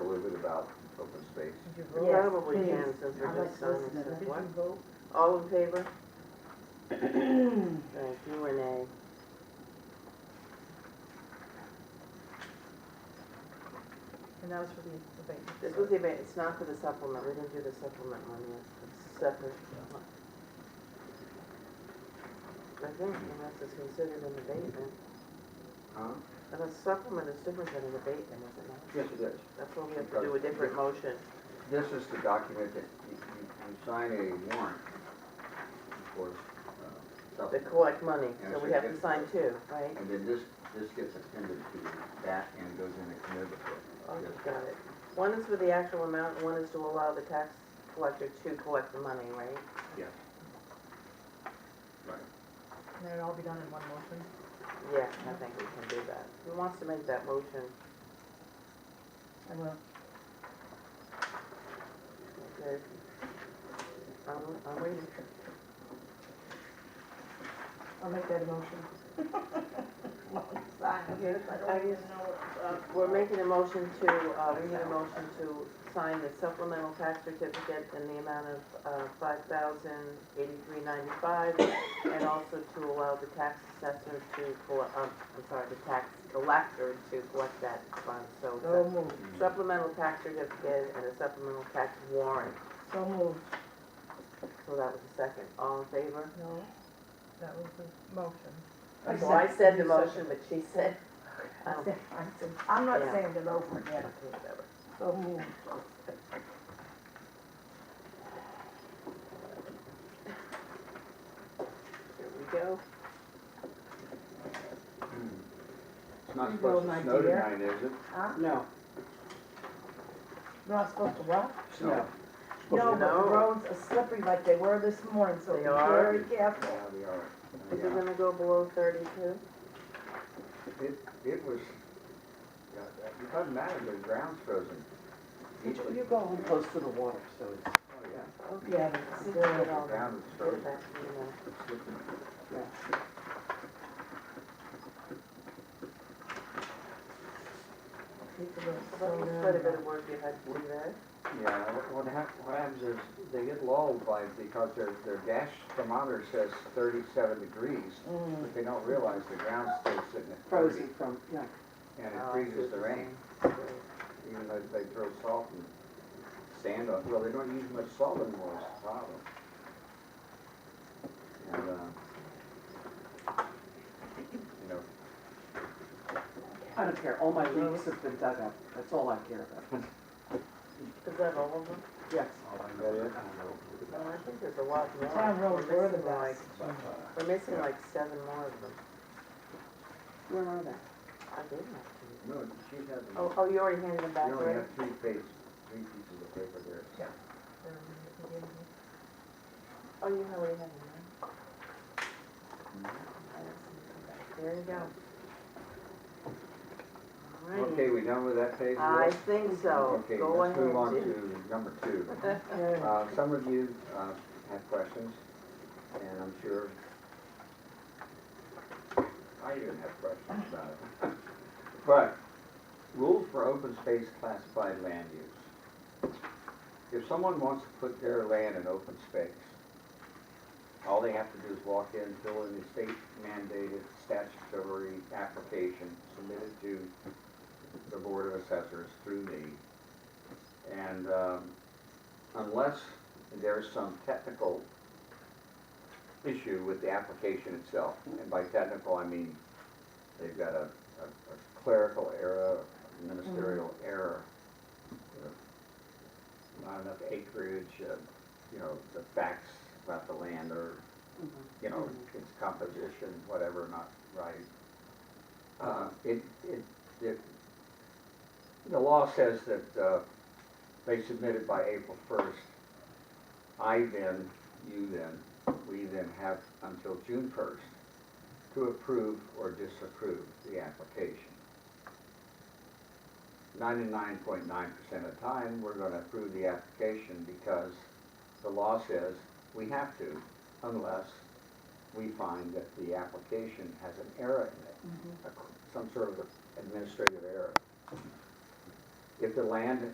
space. Did you vote? Probably Yes, can, please. since I we're like just signing listening. stuff. Did What? you vote? All in favor? Thank you, Renee. And that was for the abatement. This was the, eva- it's not for the supplement, we didn't do the supplement one yet, it's separate. I think unless it's considered an abatement, Huh? and a supplement is different than an abatement, is it not? Yes, it is. That's why we have to do a different motion. This is the document that you, you you sign a warrant, of course. uh, They supplement. collect money, so we have to sign two, right? And then this, this gets appended to that and goes in the commitment Oh, book. Yes. got it. One is for the actual amount, and one is to allow the tax collector to collect the money, right? Yes. Right. Can that all be done in one motion? Yeah, I think we can do that. Who wants to make that motion? I will. Okay. I'm, I'm waiting. I'll make that a motion. Okay, I guess- We're making a motion to, uh, we need a motion to sign the supplemental tax certificate in the amount of, uh, five thousand eighty-three ninety-five, and also to allow the tax assessor to collect, uh, I'm sorry, the tax collector to collect that fund, so it's So a moved, supplemental tax certificate and a supplemental tax warrant, so moved. so that was the second. All in favor? No. That was the motion. I Well, I said the second. motion, but she said, I um, said, I said, I'm not Yeah. saying it over again, so moved. here we go. It's not You supposed go, to my snow dear. tonight, is it? Huh? No, You're not supposed to what? No. No. No, but No. the roads are slippery like they were this morning, so They be are. very careful. Yeah, we are. Is it Yeah. gonna go below thirty-two? It, it was, yeah, it doesn't matter, the ground's frozen. you go home close to the water, so it's, Oh, yeah. Yeah, it's still at The all. ground is Put it frozen. back to you now. It's slipping. yeah. People are Well, so it's Quite a bit nervous. of work you had to do there. Yeah, what- what hap, what happens is they get lulled by, because their, their gas thermometer says thirty-seven degrees, Mm-hmm. Mm. but they don't realize the ground's still sitting at thirty. frozen from, yeah. And it Oh, I see freezes the what you're rain, saying. even though they throw salt and sand on, well, they don't use much salt anymore, is the problem. And, um, you know, I don't care, all my leaks have been dug up, that's all I care about. Is that all of them? Yes. that is. Oh, I think there's a lot more. Town roads We're were the missing like- best. uh, We're missing like seven more of them. Where are they? I did have No, she has, to. Oh, you oh, you already handed them back, only right? have three pages, three pieces of paper there. Or you gave me- Oh, you already had them, right? I didn't see them back. There you go. Alrighty. Okay, we done with that page? I Liz? think so. Okay, Go let's move on ahead. to number two. Yeah. Uh, Some of you uh, have questions, and I'm sure I even have questions about it. But rules for open space classified land use. If someone wants to put their land in open space, all they have to do is walk in, fill in the state mandated statutory application submitted to the Board of Assessors through me. And um, unless there's some technical issue with the application itself. And by technical, I mean they've got a, a a clerical error, ministerial error. you know, Not enough acreage, uh, you know, the facts about the land are Mm-hmm. you know, its composition, whatever, not right. Uh, It, it, it, the law says that uh, they submit it by April first. I then, you then, we then have until June first to approve or disapprove the application. Ninety-nine point nine percent of the time, we're gonna approve the application because the law says we have to unless we find that the application has an error in it, a- some sort of administrative error. If the land